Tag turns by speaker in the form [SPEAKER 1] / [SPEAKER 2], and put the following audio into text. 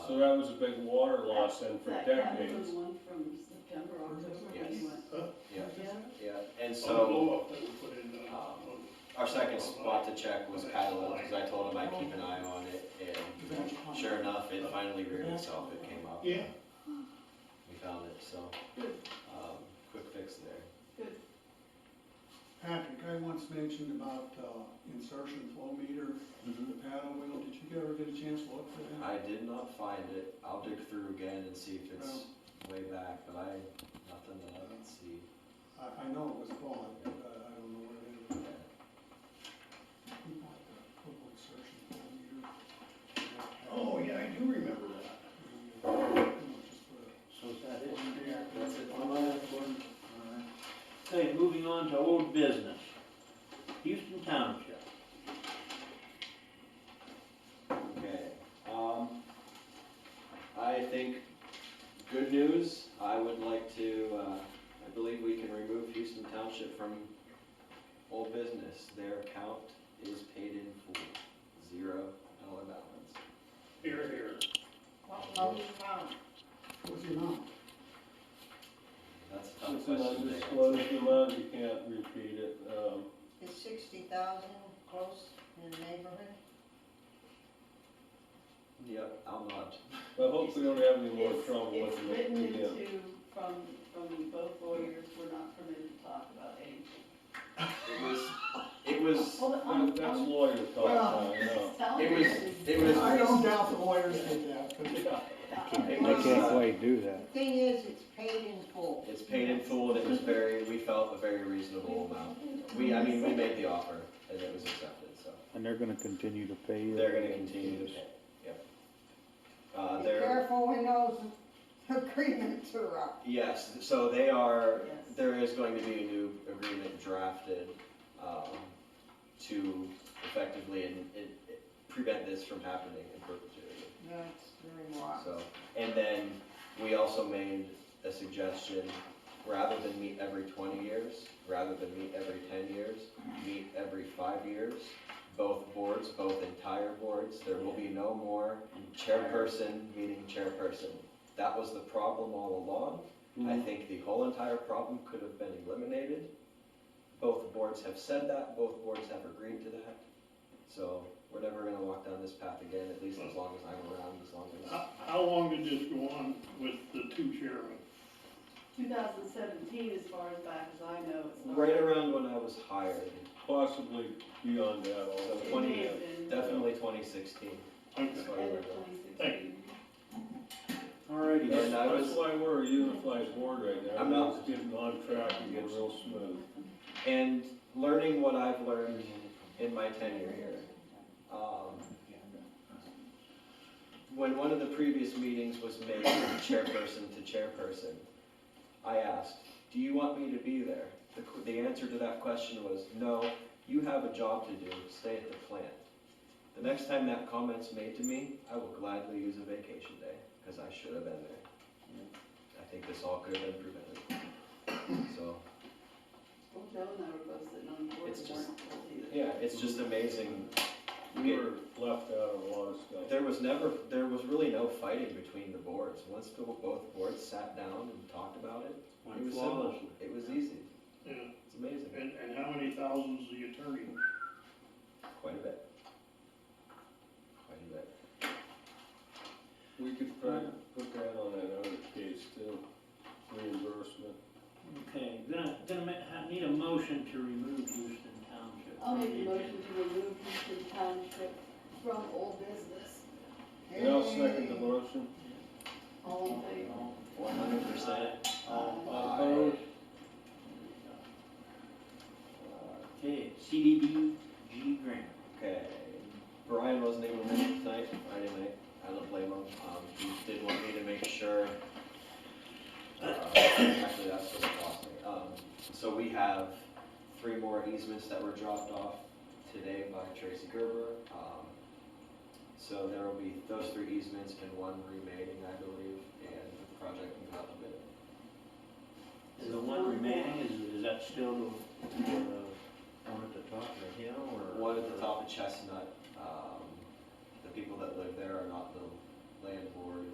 [SPEAKER 1] so that was a big water loss then for
[SPEAKER 2] That- that was
[SPEAKER 1] decades.
[SPEAKER 2] the one from September, October, when
[SPEAKER 3] Yes.
[SPEAKER 2] we went.
[SPEAKER 3] yeah,
[SPEAKER 2] Yeah.
[SPEAKER 3] yeah, and
[SPEAKER 4] On the
[SPEAKER 3] so,
[SPEAKER 4] blow up that we put in, uh,
[SPEAKER 3] Um,
[SPEAKER 4] on-
[SPEAKER 3] our second spot to check was Catalina, because I told him I'd keep an eye on it, and sure enough, it finally reared itself, it came up.
[SPEAKER 4] yeah,
[SPEAKER 3] We found it, so, um, quick fix there.
[SPEAKER 5] Patrick, I once mentioned about uh, insertion flow meter,
[SPEAKER 3] Mm-hmm.
[SPEAKER 5] the paddle wheel, did you ever get a chance to look for that?
[SPEAKER 3] I did not find it, I'll dig through again and see if it's way back, but I, nothing that I can see.
[SPEAKER 5] I, I know it was bought, but uh, I- I don't know where it is. Who bought the little insertion flow meter?
[SPEAKER 4] oh, yeah, I do remember that.
[SPEAKER 5] You know, just for the-
[SPEAKER 6] So is that it?
[SPEAKER 5] Yeah.
[SPEAKER 3] That's it.
[SPEAKER 6] One last one. Okay, moving on to old business. Houston Township.
[SPEAKER 3] Okay, um, I think, good news, I would like to, uh, I believe we can remove Houston Township from old business. Their account is paid in full, zero dollar balance.
[SPEAKER 4] Here, here.
[SPEAKER 2] Well, well, we found
[SPEAKER 5] What's the amount?
[SPEAKER 3] That's a tough
[SPEAKER 1] It's an
[SPEAKER 3] question to
[SPEAKER 1] undisclosed amount, you can't repeat it, um,
[SPEAKER 7] Is sixty thousand close in the neighborhood?
[SPEAKER 3] Yep, I'm not,
[SPEAKER 1] I hope we don't have any more
[SPEAKER 2] It's-
[SPEAKER 1] trouble with
[SPEAKER 2] It's
[SPEAKER 1] it
[SPEAKER 2] written
[SPEAKER 1] again.
[SPEAKER 2] into, from, from both lawyers, we're not permitted to talk about anything.
[SPEAKER 3] it was, it was,
[SPEAKER 2] Hold it,
[SPEAKER 1] That- That's lawyer talk,
[SPEAKER 5] Well-
[SPEAKER 1] I know.
[SPEAKER 3] it was, it was.
[SPEAKER 5] I don't doubt the lawyers did that, but
[SPEAKER 1] Yeah.
[SPEAKER 3] it
[SPEAKER 7] They
[SPEAKER 3] was,
[SPEAKER 7] can't
[SPEAKER 3] uh,
[SPEAKER 8] quite do that.
[SPEAKER 7] The Thing is, it's paid in full.
[SPEAKER 3] It's paid in full, and it was very, we felt a very reasonable amount. We, I mean, we made the offer, and it was accepted, so.
[SPEAKER 8] And they're gonna continue to pay. it.
[SPEAKER 3] They're gonna continue to pay, yep. Uh,
[SPEAKER 7] Be
[SPEAKER 3] they're,
[SPEAKER 7] careful when those agreements are up.
[SPEAKER 3] yes, so they are,
[SPEAKER 2] Yes.
[SPEAKER 3] there is going to be a new agreement drafted, um, to effectively and, and prevent this from happening in perpetuity,
[SPEAKER 7] That's very wise.
[SPEAKER 3] so. And then, we also made a suggestion, rather than meet every twenty years, rather than meet every ten years, meet every five years. Both boards, both entire boards, there will be no more chairperson meeting chairperson. That was the problem all along. I
[SPEAKER 1] Mm-hmm.
[SPEAKER 3] think the whole entire problem could have been eliminated. Both boards have said that, both boards have agreed to that. So we're never gonna walk down this path again, at least as long as I'm around, as long as.
[SPEAKER 4] How, how long did this go on with the two chairmen?
[SPEAKER 2] Two thousand seventeen, as far as back as I know, it's not.
[SPEAKER 3] Right around when I was hired,
[SPEAKER 1] Possibly beyond that also.
[SPEAKER 2] It may
[SPEAKER 3] 20
[SPEAKER 2] have
[SPEAKER 3] years.
[SPEAKER 2] been
[SPEAKER 3] definitely twenty sixteen.
[SPEAKER 4] Okay.
[SPEAKER 2] end of 2016.
[SPEAKER 6] Alrighty then.
[SPEAKER 3] And I
[SPEAKER 1] That's
[SPEAKER 3] was-
[SPEAKER 1] why we're a unified board right now.
[SPEAKER 3] I'm not-
[SPEAKER 1] It's getting on track and getting real smooth.
[SPEAKER 3] And learning what I've learned in my tenure here. um, When one of the previous meetings was made from chairperson to chairperson, I asked, do you want me to be there? The, qu- the answer to that question was, no, you have a job to do, stay at the plant. The next time that comment's made to me, I will gladly use a vacation day, because I should have been there. I think this all could have been prevented. So,
[SPEAKER 2] Well, Joe and I were both sitting on the board.
[SPEAKER 3] It's
[SPEAKER 2] and
[SPEAKER 3] just-
[SPEAKER 2] weren't guilty.
[SPEAKER 3] yeah, it's just amazing
[SPEAKER 1] We were left out of a lot of stuff.
[SPEAKER 3] There was never, there was really no fighting between the boards. Once the, both boards sat down and talked about it, it
[SPEAKER 6] Went
[SPEAKER 3] was simple.
[SPEAKER 6] flawlessly.
[SPEAKER 3] It was easy.
[SPEAKER 4] Yeah,
[SPEAKER 3] It's amazing.
[SPEAKER 4] and, and how many thousands the attorney?
[SPEAKER 3] Quite a bit. Quite a bit.
[SPEAKER 1] We could probably put that on that other case too, reimbursement.
[SPEAKER 6] Okay, gonna, gonna ma- ha- need a motion to remove Houston Township.
[SPEAKER 2] I'll
[SPEAKER 6] from
[SPEAKER 2] make
[SPEAKER 6] the
[SPEAKER 2] a
[SPEAKER 6] agenda.
[SPEAKER 2] motion to remove Houston Township from old business.
[SPEAKER 1] And I'll second the motion.
[SPEAKER 2] All in favor?
[SPEAKER 3] One hundred percent.
[SPEAKER 1] Opposed?
[SPEAKER 6] Okay, CDBG grant.
[SPEAKER 3] Okay. Brian wasn't able to make it tonight, Friday night. I don't blame him. Um, he did want me to make sure. uh, Actually, that's what it cost me. Um, so we have three more easements that were dropped off today by Tracy Gerber. Um, So there will be those three easements and one remaining, I believe, and the project can go out to bid.
[SPEAKER 6] Is the one remaining, is, is that still the, the one at the top of the hill or?
[SPEAKER 3] One at the top of Chestnut, um, the people that live there are not the land board